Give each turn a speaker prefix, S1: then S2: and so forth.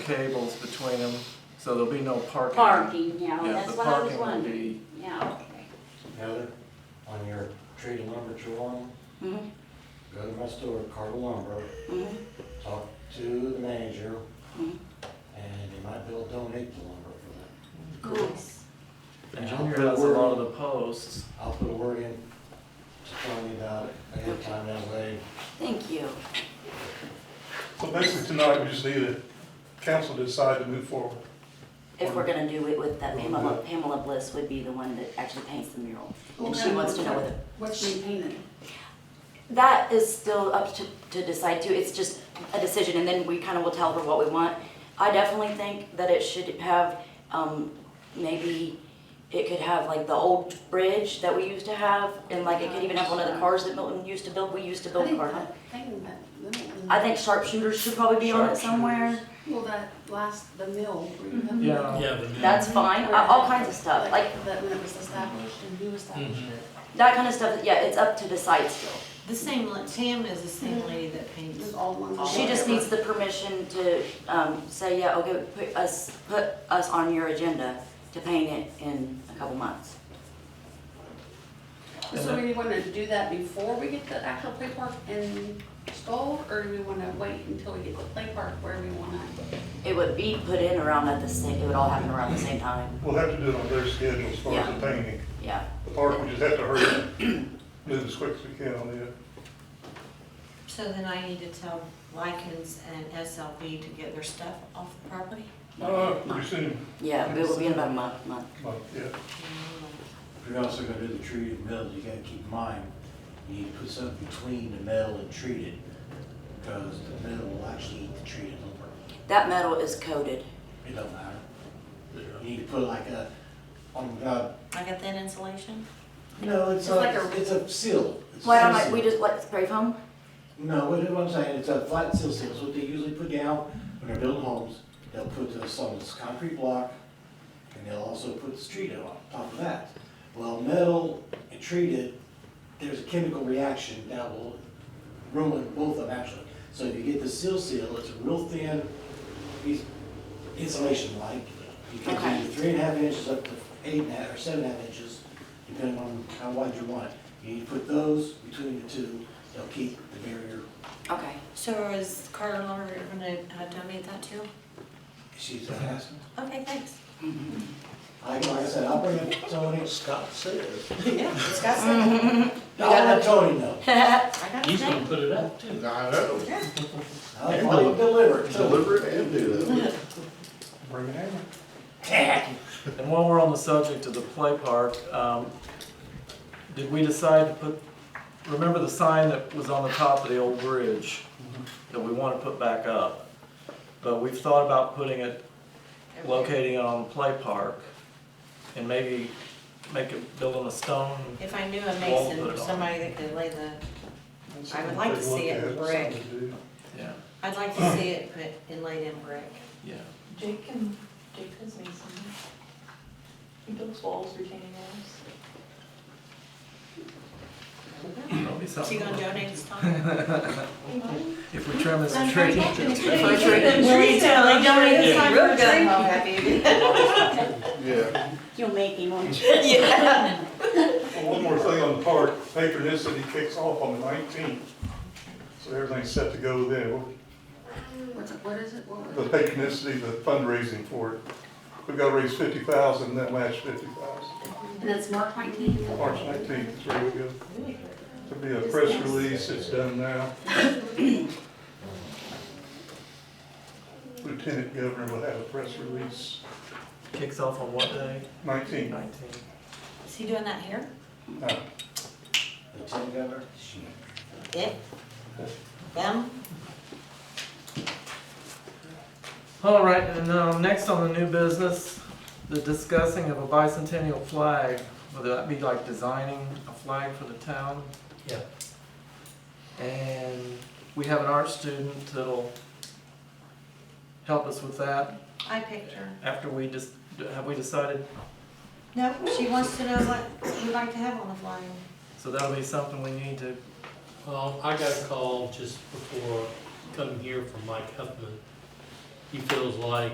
S1: tables between them, so there'll be no parking.
S2: Parking, yeah,
S1: Yeah,
S2: that's
S1: the
S2: what I was
S1: parking will
S2: wondering.
S1: be,
S2: Yeah, okay.
S3: Heather, on your tree to lumber drawing,
S2: Mhm,
S4: Mm-hmm,
S3: go to my store, Carter Lumber,
S2: mhm,
S3: talk to the manager,
S2: mhm.
S3: and you might be able to donate the lumber for that.
S2: Nice.
S1: and
S3: I'll
S1: Junior
S3: put a
S1: has a
S3: word-
S1: lot of the posts.
S3: I'll put a word in to tell me about it ahead of time, that way
S2: Thank you.
S5: So basically tonight, we just need a council to decide to move forward.
S6: If we're gonna do it with that Pamela, Pamela Bliss would be the one that actually paints the mural. And she wants to know whether,
S4: What's being painted?
S6: that is still up to, to decide too, it's just a decision and then we kind of will tell her what we want. I definitely think that it should have, um, maybe it could have like the old bridge that we used to have and like it could even have one of the cars that Milton used to build, we used to
S4: I
S6: build
S4: think
S6: cars.
S4: that thing that Milton-
S6: I think sharpshooters should probably be on it somewhere,
S4: Well, that last, the mill where you have.
S1: Mm-hmm. Yeah.
S7: Yeah, but then-
S6: that's fine, Uh, all kinds of stuff, like
S4: That when it was established and who established
S1: Mm-hmm.
S4: it.
S6: that kind of stuff, yeah, it's up to decide still.
S8: The same, la- Tam is the same lady that
S4: It
S8: paints.
S4: was all one.
S6: She just needs the permission to, um, say, yeah, okay, put us, put us on your agenda to paint it in a couple months.
S4: So do you want to do that before we get the actual play park installed, or do we want to wait until we get the play park where we want to?
S6: It would be put in around at the same, it would all happen around the same time,
S5: We'll have to do it on their schedule as far as the painting.
S6: yeah.
S5: The park, we just have to hurry, up, move as quick as we can on it.
S8: So then I need to tell Lycans and SLB to get their stuff off the property?
S5: Uh, pretty soon,
S6: Yeah, it will be in about a month, month.
S5: but, yeah.
S3: if you're also gonna do the tree to metal, you gotta keep in mind, you need to put something between the metal and treat it, because the metal will actually eat the treated lumber.
S6: That metal is coated,
S3: It don't matter. You need to put like a, oh my god,
S8: I got that insulation?
S3: no, it's
S4: It's like
S3: a,
S4: a-
S3: it's a seal. It's a
S6: why
S3: seal
S6: don't I,
S3: seal.
S6: we just let spray foam?
S3: No, what what I'm saying, it's a flat seal seal, it's what they usually put down when they're building homes. They'll put this on this concrete block, and they'll also put this treat on top of that. Well, metal and treated, there's a chemical reaction that will ruin both of them actually. So if you get the seal seal, it's a real thin piece insulation like. You can do
S6: Okay.
S3: three and a half inches up to eight and a half or seven and a half inches, depending on how wide you want it. You need to put those between the two, they'll keep the barrier.
S6: Okay,
S8: So is Carter Lumber gonna uh, donate that too?
S3: She's asking.
S8: Okay, thanks.
S3: Like like I said, I'll bring up Tony. Scott says.
S8: Yeah, Scott said,
S3: I'll let Tony know.
S8: I got it.
S7: He's gonna put it up too.
S9: I know,
S3: I'll probably deliver it too.
S9: deliver it and do that.
S5: Bring it in.
S1: And while we're on the subject of the play park, um, did we decide to put, remember the sign that was on the top of the old bridge that we want to put back up? But we've thought about putting it, locating it on the play park and maybe make it, build on a stone.
S8: If I knew a
S1: Wall put
S8: mason,
S1: it
S8: or
S1: on.
S8: somebody that could lay the, I would like to see it in brick.
S1: Yeah,
S8: I'd like to see it put in laid in brick.
S1: yeah.
S10: Jake can, Jake has made some, he builds walls, retaining walls.
S1: That'll be
S8: Is he
S1: something.
S8: gonna donate his time?
S1: If we trim this
S8: I'm
S1: tree.
S8: very
S1: If we
S8: happy.
S1: trim
S8: Will he totally donate his time for a tree?
S9: Yeah,
S2: You'll make him, won't you?
S5: Well, One more thing on the park, patronicity kicks off on the nineteenth. So everything's set to go then.
S4: What's, it- what is it? What was
S5: The
S4: it?
S5: patronicity, the fundraising for it. We've got to raise fifty thousand, that last fifty thousand.
S4: And it's March nineteenth.
S5: March nineteenth, is where we go. There'll be a press release, it's done now. Lieutenant Governor will have a press release,
S1: Kicks off on what day?
S5: nineteen.
S1: Nineteen.
S8: Is he doing that here?
S5: Uh,
S3: The tin cover, she-
S8: It? Them?
S1: All right, and um, next on the new business, the discussing of a bicentennial flag. Would that be like designing a flag for the town?
S7: Yeah.
S1: And we have an art student that'll help us with that
S8: I picked her.
S1: after we just, have we decided?
S8: No, she wants to know what you'd like to have on the flyer.
S1: So that'll be something we need to,
S7: Well, I got a call just before coming here from Mike Huffman, he feels like